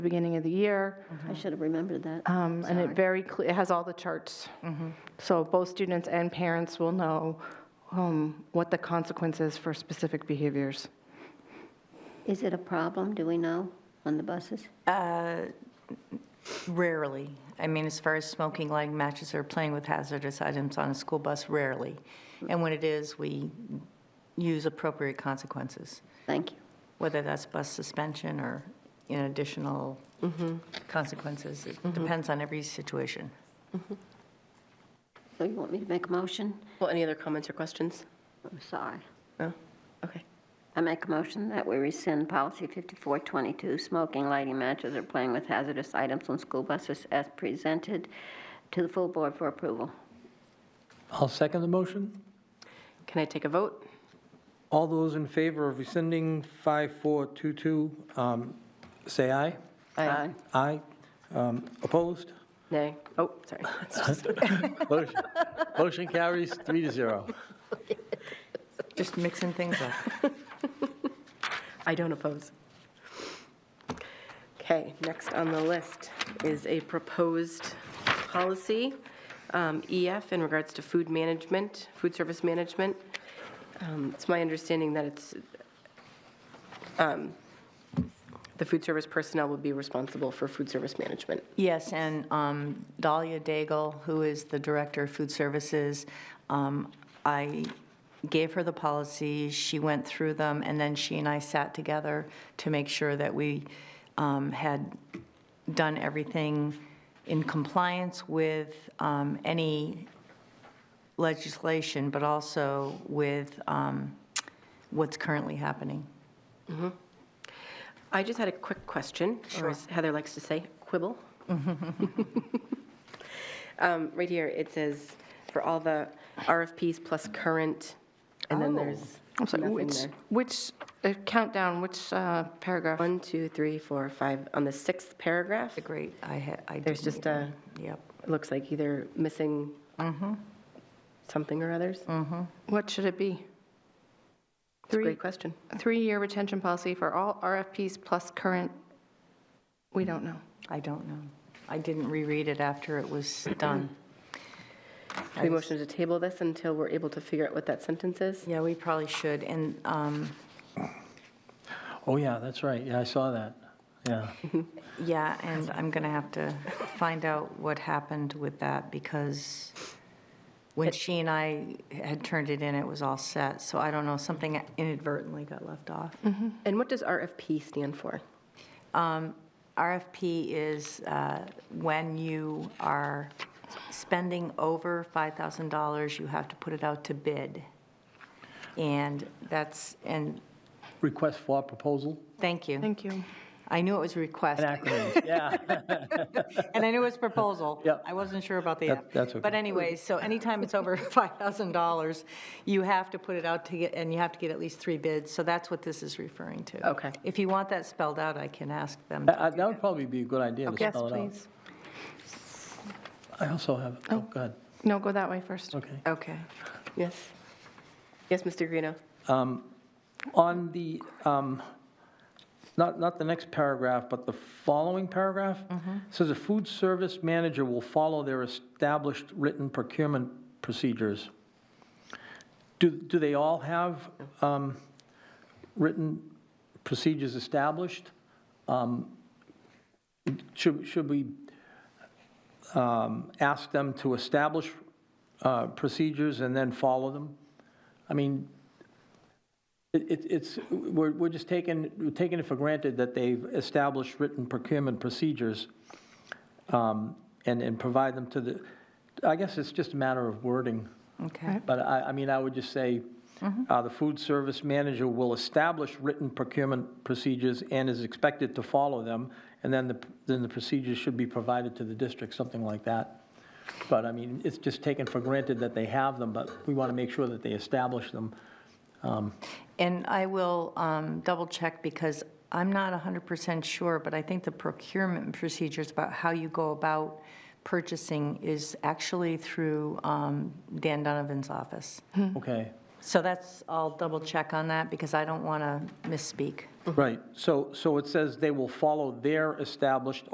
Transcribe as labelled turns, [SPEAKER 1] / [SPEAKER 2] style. [SPEAKER 1] the beginning of the year.
[SPEAKER 2] I should have remembered that.
[SPEAKER 1] Um, And it very, cle- it has all the charts. So both students and parents will know um, what the consequences for specific behaviors.
[SPEAKER 2] Is it a problem, do we know, on the buses?
[SPEAKER 3] Rarely. I mean, as far as smoking, lighting matches, or playing with hazardous items on a school bus, rarely. And when it is, we use appropriate consequences,
[SPEAKER 2] Thank you.
[SPEAKER 3] whether that's bus suspension or, you know, additional consequences. It depends on every situation.
[SPEAKER 2] So you want me to make a motion?
[SPEAKER 4] Well, any other comments or questions?
[SPEAKER 2] I'm sorry.
[SPEAKER 4] No? Okay.
[SPEAKER 2] I make a motion that we rescind policy 5422, smoking, lighting matches, or playing with hazardous items on school buses as presented to the full board for approval.
[SPEAKER 5] I'll second the motion.
[SPEAKER 4] Can I take a vote?
[SPEAKER 5] All those in favor of rescinding 5422, um, say aye.
[SPEAKER 4] Aye.
[SPEAKER 5] Aye. Um, Opposed?
[SPEAKER 4] Nay? Oh, sorry.
[SPEAKER 6] Motion- Motion carries three to zero.
[SPEAKER 3] Just mixing things up.
[SPEAKER 4] I don't oppose. Okay, next on the list is a proposed policy, um, EF, in regards to food management, food service management. Um, It's my understanding that it's, um, the food service personnel would be responsible for food service management.
[SPEAKER 3] Yes, and um, Dahlia Daigle, who is the Director of Food Services, um, I gave her the policies, she went through them, and then she and I sat together to make sure that we um, had done everything in compliance with um, any legislation, but also with um, what's currently happening.
[SPEAKER 4] I just had a quick question, or as Heather likes to say, quibble. Um, Right here, it says, for all the RFPs plus current, and then there's
[SPEAKER 1] Oh. I'm sorry,
[SPEAKER 4] nothing
[SPEAKER 1] which,
[SPEAKER 4] there.
[SPEAKER 1] which, uh, countdown, which uh, paragraph?
[SPEAKER 4] One, two, three, four, five, on the sixth paragraph, it
[SPEAKER 3] Great, I had, I did
[SPEAKER 4] There's just a-
[SPEAKER 3] Yep.
[SPEAKER 4] looks like either missing
[SPEAKER 1] Mm-hmm.
[SPEAKER 4] something or others. It's
[SPEAKER 1] What should it be?
[SPEAKER 4] a
[SPEAKER 1] Mm-hmm. Three-
[SPEAKER 4] great question.
[SPEAKER 1] Three-year retention policy for all RFPs plus current, we don't know.
[SPEAKER 3] I don't know. I didn't reread it after it was done.
[SPEAKER 4] Should we motion to table this until we're able to figure out what that sentence is?
[SPEAKER 3] Yeah, we probably should, and, um,
[SPEAKER 6] Oh, yeah, that's right. Yeah, I saw that. Yeah.
[SPEAKER 3] yeah, and I'm going to have to find out what happened with that, because when she and I had turned it in, it was all set, so I don't know, something inadvertently got left off.
[SPEAKER 1] Mm-hmm.
[SPEAKER 4] And what does RFP stand for?
[SPEAKER 3] RFP is uh, when you are spending over $5,000, you have to put it out to bid. And that's, and,
[SPEAKER 6] Request for proposal.
[SPEAKER 3] thank you.
[SPEAKER 1] Thank you.
[SPEAKER 3] I knew it was request,
[SPEAKER 6] An acronym. Yeah.
[SPEAKER 3] and I knew it was proposal.
[SPEAKER 6] Yep.
[SPEAKER 3] I wasn't sure about the.
[SPEAKER 6] That- that's
[SPEAKER 3] But
[SPEAKER 6] okay.
[SPEAKER 3] anyway, so anytime it's over $5,000, you have to put it out to get, and you have to get at least three bids, so that's what this is referring to.
[SPEAKER 4] Okay.
[SPEAKER 3] If you want that spelled out, I can ask them.
[SPEAKER 6] I- I- That would probably be a good idea to
[SPEAKER 1] Yes,
[SPEAKER 6] spell it out.
[SPEAKER 1] please.
[SPEAKER 6] I also have, oh, go ahead.
[SPEAKER 1] No, go that way first.
[SPEAKER 6] Okay.
[SPEAKER 3] Okay.
[SPEAKER 4] Yes? Yes, Mr. Greeno?
[SPEAKER 6] On the, um, not, not the next paragraph, but the following paragraph, says a food service manager will follow their established written procurement procedures. Do, do they all have um, written procedures established? Um, Should, should we um, ask them to establish uh, procedures and then follow them? I mean, it- it- It's, we're we're just taking, we're taking it for granted that they've established written procurement procedures um, and, and provide them to the, I guess it's just a matter of wording.
[SPEAKER 3] Okay.
[SPEAKER 6] But I, I mean, I would just say, uh, the food service manager will establish written procurement procedures and is expected to follow them, and then the, then the procedures should be provided to the district, something like that. But I mean, it's just taken for granted that they have them, but we want to make sure that they establish them.
[SPEAKER 3] And I will double-check because I'm not 100% sure, but I think the procurement procedures about how you go about purchasing is actually through um, Dan Donovan's office.
[SPEAKER 6] Okay.
[SPEAKER 3] So that's, I'll double-check on that because I don't want to misspeak.
[SPEAKER 6] Right, so, so it says they will follow their established